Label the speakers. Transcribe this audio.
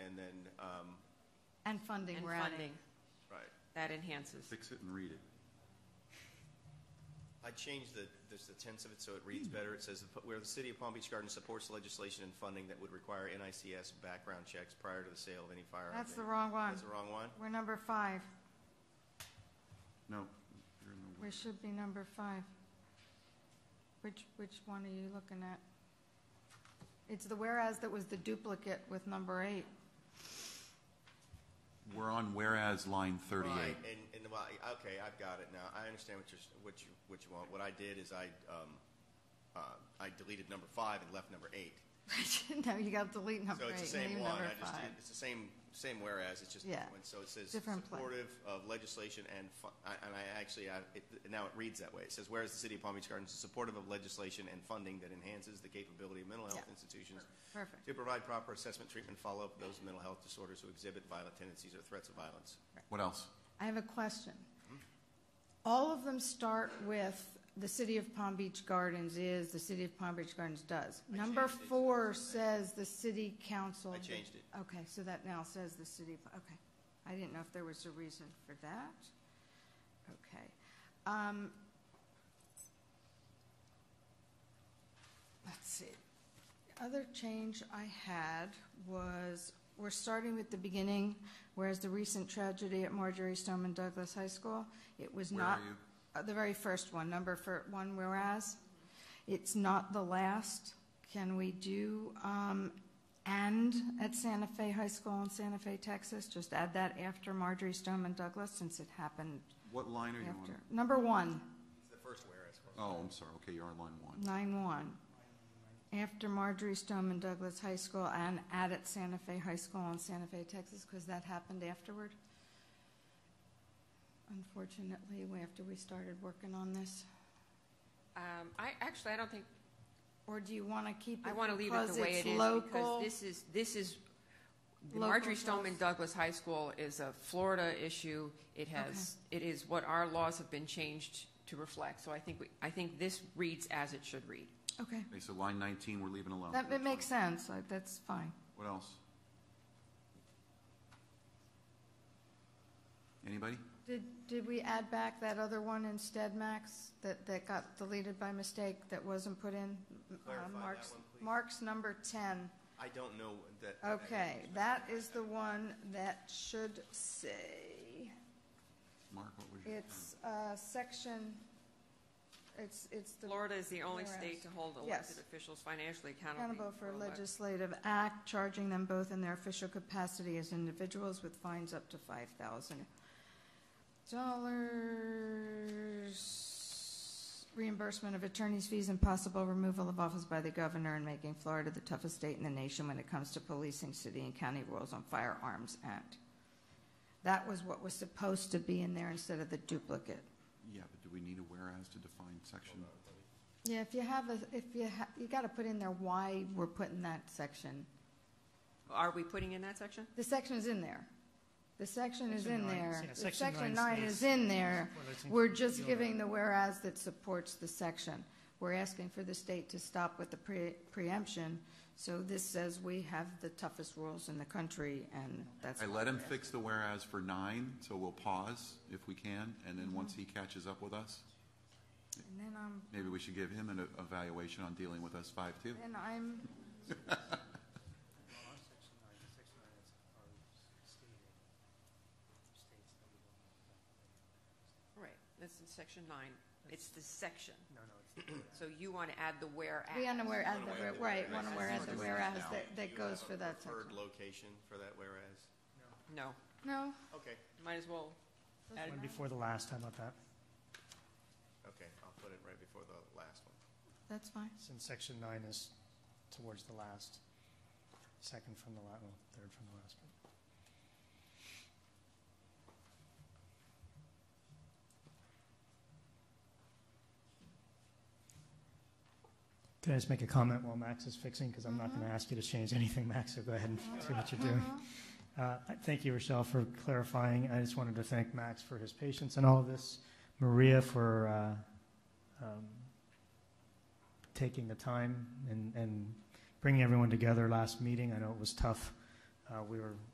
Speaker 1: um,
Speaker 2: And funding,
Speaker 3: and
Speaker 2: we're adding.
Speaker 3: funding.
Speaker 4: Right.
Speaker 3: That enhances.
Speaker 4: Fix it and read it.
Speaker 1: I changed the, there's the tense of it so it reads better. It says, "Where the City of Palm Beach Gardens supports legislation and funding that would require NICS background checks prior to the sale of any firearm."
Speaker 2: That's the wrong one.
Speaker 1: That's the wrong one?
Speaker 2: We're number five.
Speaker 4: No, you're in the-
Speaker 2: We should be number five. Which, which one are you looking at? It's the whereas that was the duplicate with number eight.
Speaker 4: we're on whereas line
Speaker 1: Right,
Speaker 4: thirty-eight.
Speaker 1: and, and, well, I- okay, I've got it now. I understand what you're, s- what you, what you want. What I did is I, um, uh, I deleted number five and left number eight.
Speaker 2: No, you got to delete number
Speaker 1: So
Speaker 2: eight,
Speaker 1: it's the
Speaker 2: leave
Speaker 1: same one,
Speaker 2: Oh, number
Speaker 1: I just,
Speaker 2: five.
Speaker 1: it's the same, same whereas, it's just,
Speaker 2: Yeah.
Speaker 1: different. so it says
Speaker 2: Different pla-
Speaker 1: supportive of legislation and, fu- I- and I actually, I, it- now it reads that way. It says, whereas the city of Palm Beach Gardens is supportive of legislation and funding that enhances the capability of mental health
Speaker 2: Yeah.
Speaker 1: institutions
Speaker 2: Perfect.
Speaker 1: to provide proper assessment, treatment, follow-up of those with mental health disorders who exhibit violent tendencies or threats of violence.
Speaker 4: What else?
Speaker 2: I have a question. All of them start with the City of Palm Beach Gardens is, the City of Palm Beach Gardens does.
Speaker 1: I
Speaker 2: Number
Speaker 1: changed it, so
Speaker 2: four
Speaker 1: it's-
Speaker 2: says the city council.
Speaker 1: I changed it.
Speaker 2: Okay, so that now says the city, of- okay. I didn't know if there was a reason for that. Okay. Um, Let's see. The Other change I had was, we're starting with the beginning, whereas the recent tragedy at Marjorie Stoneman Douglas High School, it was
Speaker 4: Where
Speaker 2: not.
Speaker 4: are you?
Speaker 2: Uh, The very first one, number for one whereas. It's not the last. Can we do, um, and at Santa Fe High School in Santa Fe, Texas? Just add that after Marjorie Stoneman Douglas, since it happened
Speaker 4: What line are you
Speaker 2: after.
Speaker 4: on?
Speaker 2: Number one.
Speaker 1: It's the first whereas.
Speaker 4: Oh, I'm sorry, okay, you're on line one.
Speaker 2: Line one. After Marjorie Stoneman Douglas High School and add at Santa Fe High School in Santa Fe, Texas, because that happened afterward. Unfortunately, we- after we started working on this.
Speaker 3: Um, I, actually, I don't think,
Speaker 2: Or do you want to keep it?
Speaker 3: I want to leave it
Speaker 2: because
Speaker 3: the way
Speaker 2: it's
Speaker 3: it is
Speaker 2: local?
Speaker 3: because this is, this is, the
Speaker 2: Local
Speaker 3: Marjorie
Speaker 2: to
Speaker 3: Stoneman
Speaker 2: us.
Speaker 3: Douglas High School is a Florida issue. It has, it is what our laws have been changed to reflect. So I think, we I think this reads as it should read.
Speaker 2: Okay,
Speaker 4: Okay, so line nineteen, we're leaving alone.
Speaker 2: that, it makes sense, Like, that's fine.
Speaker 4: What else? Anybody?
Speaker 2: Did, did we add back that other one instead, Max, that, that got deleted by mistake, that wasn't put in? Uh,
Speaker 1: Clarify that
Speaker 2: Mark's-
Speaker 1: one, please.
Speaker 2: Mark's number ten.
Speaker 1: I don't know that.
Speaker 2: Okay, that is the one that should say,
Speaker 4: Mark, what was your?
Speaker 2: it's, uh, section, it's, it's the
Speaker 3: Florida is the only state
Speaker 2: Whereas.
Speaker 3: to hold
Speaker 2: Yes.
Speaker 3: elected officials financially accountable.
Speaker 2: accountable for a
Speaker 3: elect-
Speaker 2: legislative act, charging them both in their official capacity as individuals with fines up to five thousand dollars, reimbursement of attorney's fees and possible removal of office by the governor and making Florida the toughest state in the nation when it comes to policing city and county rules on firearms act. That was what was supposed to be in there instead of the duplicate.
Speaker 4: Yeah, but do we need a whereas to define section?
Speaker 2: Yeah, if you have a, if you ha, you gotta put in there why we're putting that section.
Speaker 3: Are we putting in that section?
Speaker 2: The section is in there. The section is
Speaker 5: Section
Speaker 2: in
Speaker 5: nine,
Speaker 2: there.
Speaker 5: yeah,
Speaker 2: The
Speaker 5: section
Speaker 2: Section
Speaker 5: nine
Speaker 2: nine
Speaker 5: stays.
Speaker 2: is in there.
Speaker 5: Well, it's in-
Speaker 2: We're just
Speaker 5: you're
Speaker 2: giving the whereas that supports the section. We're asking for the state to stop with the pre- preemption, so this says we have the toughest rules in the country, and that's.
Speaker 4: I
Speaker 2: why
Speaker 4: let him
Speaker 2: we're
Speaker 4: fix the whereas for nine, so we'll pause if we can, and
Speaker 2: Mm-hmm.
Speaker 4: then once he catches up with us,
Speaker 2: asking. And then um, I'm,
Speaker 4: maybe we should give him an e- evaluation on dealing with us five too.
Speaker 2: then I'm,
Speaker 5: Well, our section nine, the section nine is our stated, states that we don't want to back.
Speaker 3: Right, that's in section nine. It's the section.
Speaker 5: No, no, it's not that.
Speaker 3: So you want to add the whereas.
Speaker 2: we on the whereas,
Speaker 1: Wanna wear the
Speaker 2: right,
Speaker 1: whereas.
Speaker 2: want to whereas, the
Speaker 4: Let's do it
Speaker 2: whereas
Speaker 4: now.
Speaker 2: that,
Speaker 1: Do
Speaker 2: that
Speaker 1: you
Speaker 2: goes
Speaker 1: have
Speaker 2: for
Speaker 1: a
Speaker 2: that section.
Speaker 1: Preferred location for that whereas?
Speaker 3: No,
Speaker 2: No?
Speaker 1: Okay,
Speaker 3: might as well add it.
Speaker 5: One before the last, how about that?
Speaker 1: okay, I'll put it right before the last one.
Speaker 2: That's fine.
Speaker 5: Since section nine is towards the last, second from the last, well, third from the last. one. Can I just make a comment while Max is fixing? Because I'm not going to ask you to change anything, Max, so go ahead and do what you're doing. Uh, Thank you, Rochelle, for clarifying. I just wanted to thank Max for his patience in all of this, Maria for uh, um, taking the time and, and bringing everyone together last meeting. I know it was tough. Uh, We were